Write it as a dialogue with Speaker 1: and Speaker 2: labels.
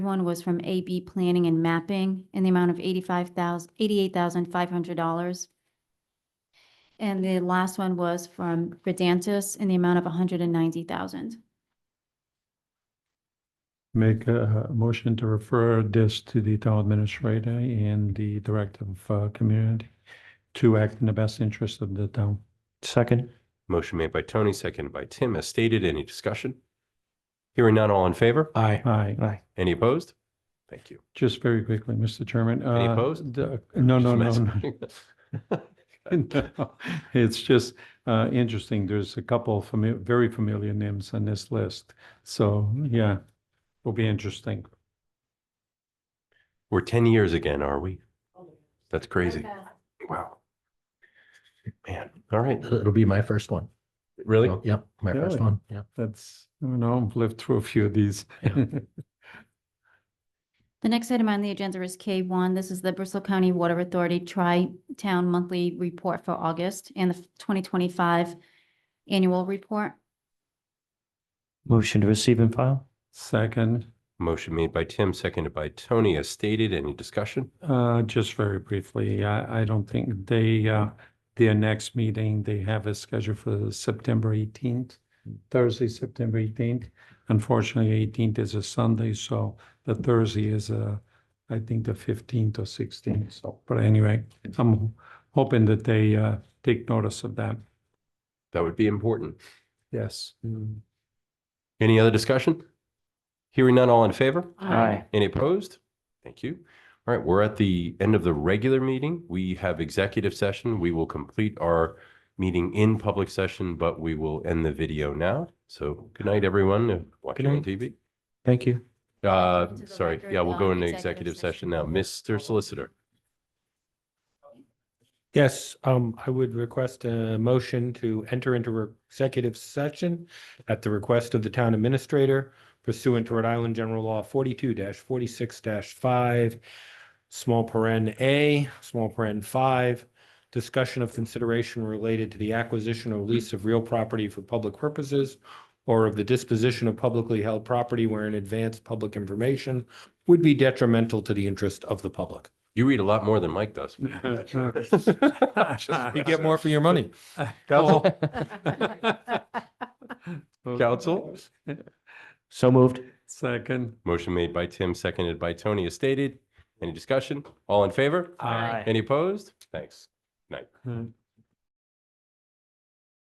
Speaker 1: One was from AB Planning and Mapping in the amount of eighty-five thousand, eighty-eight thousand five hundred dollars. And the last one was from Redantis in the amount of hundred and ninety thousand.
Speaker 2: Make a a motion to refer this to the town administrator and the director of uh, community to act in the best interest of the town.
Speaker 3: Second.
Speaker 4: Motion made by Tony, seconded by Tim, as stated. Any discussion? Hearing none, all in favor?
Speaker 3: Aye.
Speaker 2: Aye.
Speaker 3: Aye.
Speaker 4: Any opposed? Thank you.
Speaker 2: Just very quickly, Mr. Chairman.
Speaker 4: Any
Speaker 2: uh,
Speaker 4: opposed?
Speaker 2: the- No, no, no,
Speaker 4: Just
Speaker 2: no. No, It's just uh, interesting. There's a couple fami- very familiar names on this list. So, yeah, will be interesting.
Speaker 4: We're 10 years again, are we? That's crazy. Wow. Man, all right.
Speaker 5: It'll be my first one.
Speaker 4: Really?
Speaker 5: So, Yep, my
Speaker 2: Really?
Speaker 5: first one, yeah.
Speaker 2: That's, I don't know, I've lived through a few of these.
Speaker 1: The next item on the agenda is K one. This is the Bristol County Water Authority Tri-Town Monthly Report for August and the twenty twenty-five Annual Report.
Speaker 3: Motion to receive and file.
Speaker 2: Second,
Speaker 4: Motion made by Tim, seconded by Tony, as stated. Any discussion?
Speaker 2: Uh, just very briefly, I, I don't think they, uh, their next meeting, they have it scheduled for September eighteenth, Thursday, September eighteenth. Unfortunately, eighteenth is a Sunday, so the Thursday is, uh, I think the fifteenth or sixteenth, so, but anyway, I'm hoping that they, uh, take notice of that.
Speaker 4: That would be important.
Speaker 2: Yes.
Speaker 4: Any other discussion? Hearing none, all in favor?
Speaker 3: Aye.
Speaker 4: Any opposed? Thank you. All right, we're at the end of the regular meeting. We have executive session. We will complete our meeting in public session, but we will end the video now. So good night, everyone. Watching on TV.
Speaker 3: Thank you.
Speaker 4: Uh,
Speaker 1: To the
Speaker 4: sorry,
Speaker 1: record,
Speaker 4: yeah, we'll go
Speaker 1: uh,
Speaker 4: into
Speaker 1: executive
Speaker 4: executive
Speaker 1: session.
Speaker 4: session now. Mr. Solicitor,
Speaker 6: Yes, um, I would request a motion to enter into re- executive session at the request of the town administrator pursuant to Rhode Island General Law forty-two forty-six five, small paren A, small paren five, discussion of consideration related to the acquisition or lease of real property for public purposes or of the disposition of publicly held property wherein advanced public information would be detrimental to the interest of the public.
Speaker 4: you read a lot more than Mike does.
Speaker 2: Ah.
Speaker 6: You get more for your money.
Speaker 4: Council,
Speaker 2: Council?
Speaker 3: So moved.
Speaker 2: Second.
Speaker 4: motion made by Tim, seconded by Tony, as stated. Any discussion? All in favor?
Speaker 3: Aye.
Speaker 4: Any opposed? Thanks.
Speaker 2: Mm.